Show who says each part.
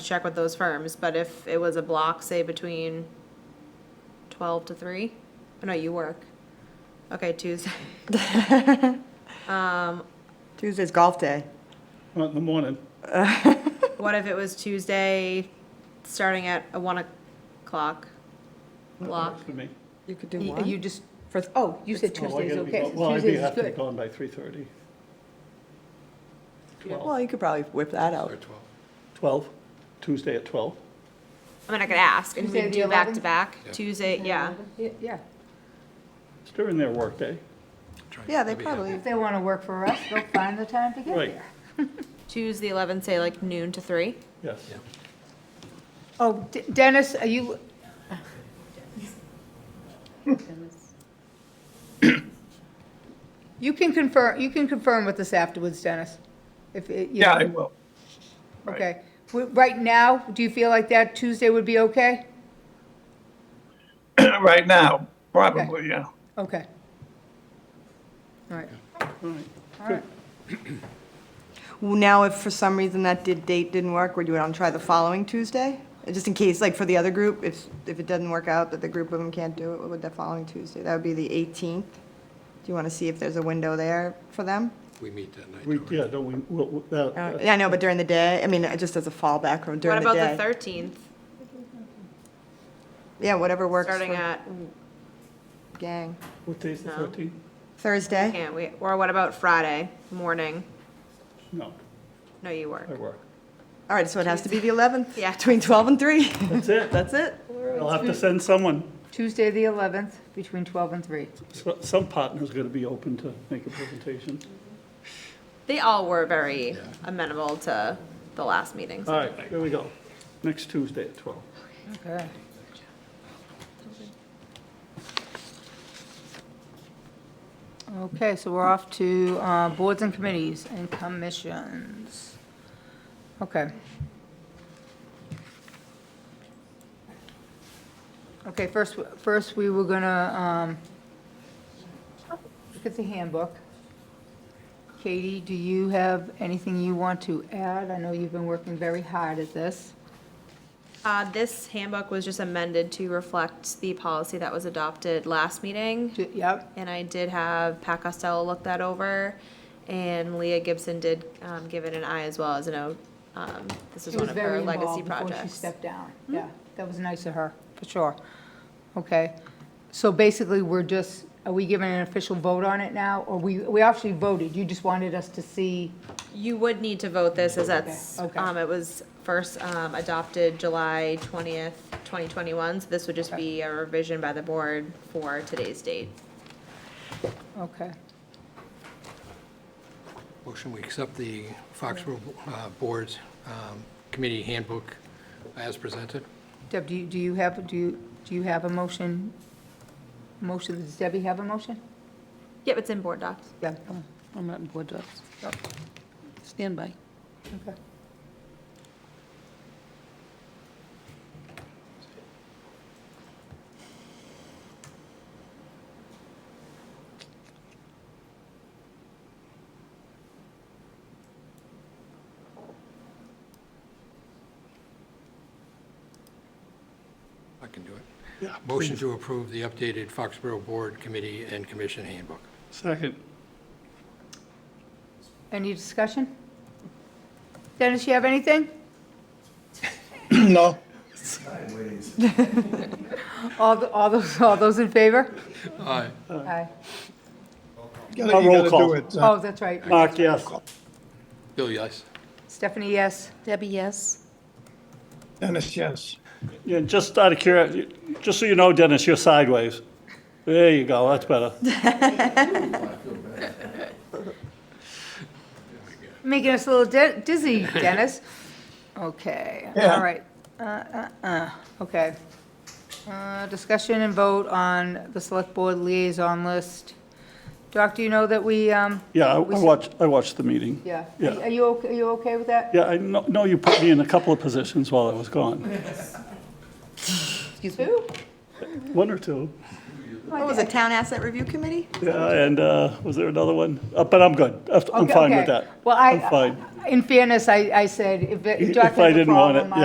Speaker 1: check with those firms, but if it was a block, say between twelve to three, oh no, you work. Okay, Tuesday,
Speaker 2: Tuesday's golf day.
Speaker 3: Well, in the morning,
Speaker 1: what if it was Tuesday, starting at a one o'clock
Speaker 3: that
Speaker 1: block?
Speaker 3: works for me.
Speaker 2: You could do
Speaker 4: You
Speaker 2: one.
Speaker 4: you just, for, oh, you said
Speaker 3: Well, I
Speaker 4: Tuesday is
Speaker 3: gotta be
Speaker 4: okay,
Speaker 3: gone-
Speaker 4: so
Speaker 3: Well, I'd be
Speaker 4: Tuesday is
Speaker 3: have to be
Speaker 4: good.
Speaker 3: gone by 3:30.
Speaker 2: Well, you could probably whip that out.
Speaker 3: 12, Tuesday at 12.
Speaker 1: I mean, I could ask, and we
Speaker 4: Tuesday
Speaker 1: can
Speaker 4: the
Speaker 1: do back to
Speaker 4: 11th?
Speaker 1: back, Tuesday, yeah.
Speaker 4: Yeah,
Speaker 3: It's during their workday.
Speaker 2: Yeah, they probably,
Speaker 4: if they want to work for us, they'll find the time to get
Speaker 3: Right.
Speaker 4: there.
Speaker 1: Tuesday eleven, say like noon to three.
Speaker 3: Yes.
Speaker 4: Oh, D- Dennis, are you? You can confirm, you can confirm with us afterwards, Dennis, if, it- you
Speaker 5: Yeah, I
Speaker 4: know,
Speaker 5: will.
Speaker 4: okay. W- Right now, do you feel like that Tuesday would be okay?
Speaker 5: Right now, probably, yeah.
Speaker 4: Okay. All right, all right.
Speaker 2: now if for some reason that did, date didn't work, would you want to try the following Tuesday? Just in case, like for the other group, if, if it doesn't work out, that the group of them can't do it, would the following Tuesday? That would be the 18th. Do you want to see if there's a window there for them?
Speaker 6: We meet that night.
Speaker 3: We,
Speaker 6: don't we?
Speaker 3: yeah, don't we, we'll- we'll- that-
Speaker 2: Uh,
Speaker 3: that-
Speaker 2: Yeah, I know, but during the day, I mean, uh, just as a fallback or
Speaker 1: What
Speaker 2: during the
Speaker 1: about
Speaker 2: day.
Speaker 1: the thirteenth,
Speaker 2: Yeah, whatever works
Speaker 1: starting
Speaker 2: for
Speaker 1: at,
Speaker 2: gang.
Speaker 3: what day is the
Speaker 1: No.
Speaker 3: 13th?
Speaker 2: Thursday?
Speaker 1: can't we, or what about Friday morning?
Speaker 3: No,
Speaker 1: No, you work.
Speaker 3: I work.
Speaker 2: All right, so it has to be the 11th?
Speaker 1: Yeah. Oh,
Speaker 2: Between 12 and 3?
Speaker 3: That's it.
Speaker 2: That's it?
Speaker 3: I'll have to send someone,
Speaker 4: Tuesday, the 11th, between 12 and 3.
Speaker 3: so- some partner's going to be open to make a presentation.
Speaker 1: They all were very amenable to the last meeting. so-
Speaker 3: All right, here we go. Next Tuesday at 12.
Speaker 4: Okay. Okay, so we're off to uh, boards and committees and commissions. Okay. Okay, first, first we were gonna um, look at the handbook. Katie, do you have anything you want to add? I know you've been working very hard at this.
Speaker 1: Uh, this handbook was just amended to reflect the policy that was adopted last meeting.
Speaker 4: Do- Yep.
Speaker 1: And I did have Pat Costello look that over, and Leah Gibson did, um, give it an eye as well as an O. Um, this is
Speaker 4: She
Speaker 1: one
Speaker 4: was
Speaker 1: of her
Speaker 4: very
Speaker 1: legacy
Speaker 4: involved before she
Speaker 1: projects.
Speaker 4: stepped down. Yeah, that was nice of her, Hmm? for sure. Okay, so basically, we're just, are we giving an official vote on it now? Or we, we actually voted, you just wanted us to see,
Speaker 1: You would need to vote this as that's,
Speaker 4: Okay, okay.
Speaker 1: um, it was first, um, adopted July twentieth, twenty twenty-one, so this would just
Speaker 4: Okay.
Speaker 1: be a revision by the board for today's date.
Speaker 4: okay.
Speaker 6: Motion, we accept the Foxborough uh, Board's um, Committee Handbook as presented.
Speaker 4: Deb, do you, do you have, do you, do you have a motion? Motion, does Debbie have a motion?
Speaker 1: Yep, it's in board docs.
Speaker 4: Yeah.
Speaker 7: I'm not in board docs.
Speaker 4: Oh.
Speaker 7: Stand by.
Speaker 4: Okay.
Speaker 6: I can do it. Motion to approve the updated Foxborough Board Committee and Commission Handbook.
Speaker 3: Second.
Speaker 4: Any discussion? Dennis, you have anything?
Speaker 5: No,
Speaker 4: All, the- all those, all those in favor?
Speaker 6: Aye.
Speaker 4: Aye.
Speaker 5: you
Speaker 3: Uh,
Speaker 5: gotta,
Speaker 3: roll
Speaker 5: you gotta
Speaker 3: call.
Speaker 5: do it. uh,
Speaker 4: Oh, that's right.
Speaker 3: Mark, yes.
Speaker 6: Bill, yes?
Speaker 4: Stephanie, yes.
Speaker 7: Debbie, yes?
Speaker 5: Dennis, yes.
Speaker 3: Yeah, just out of curiosity, just so you know, Dennis, you're sideways. There you go, that's better.
Speaker 4: Making us a little di- dizzy, Dennis. Okay,
Speaker 5: Yeah.
Speaker 4: all right. Uh, uh, uh, Okay. Uh, Discussion and vote on the Select Board liaison list. Doc, do you know that we, um,
Speaker 3: Yeah, I I
Speaker 4: We should-
Speaker 3: watched, I watched the meeting.
Speaker 4: yeah,
Speaker 3: Yeah.
Speaker 4: are you, okay? are you okay with that?
Speaker 3: Yeah, I know know you put me in a couple of positions while I was gone,
Speaker 4: Excuse me?
Speaker 3: one or two.
Speaker 2: What was it, Town Asset Review Committee?
Speaker 3: Yeah, and uh, was there another one? Uh, But I'm good, I'm fine with that.
Speaker 4: Well,
Speaker 3: I'm fine.
Speaker 4: I, in fairness, I, I said, if it-
Speaker 3: If
Speaker 4: Doc has
Speaker 3: I
Speaker 4: a
Speaker 3: didn't want it,
Speaker 4: problem,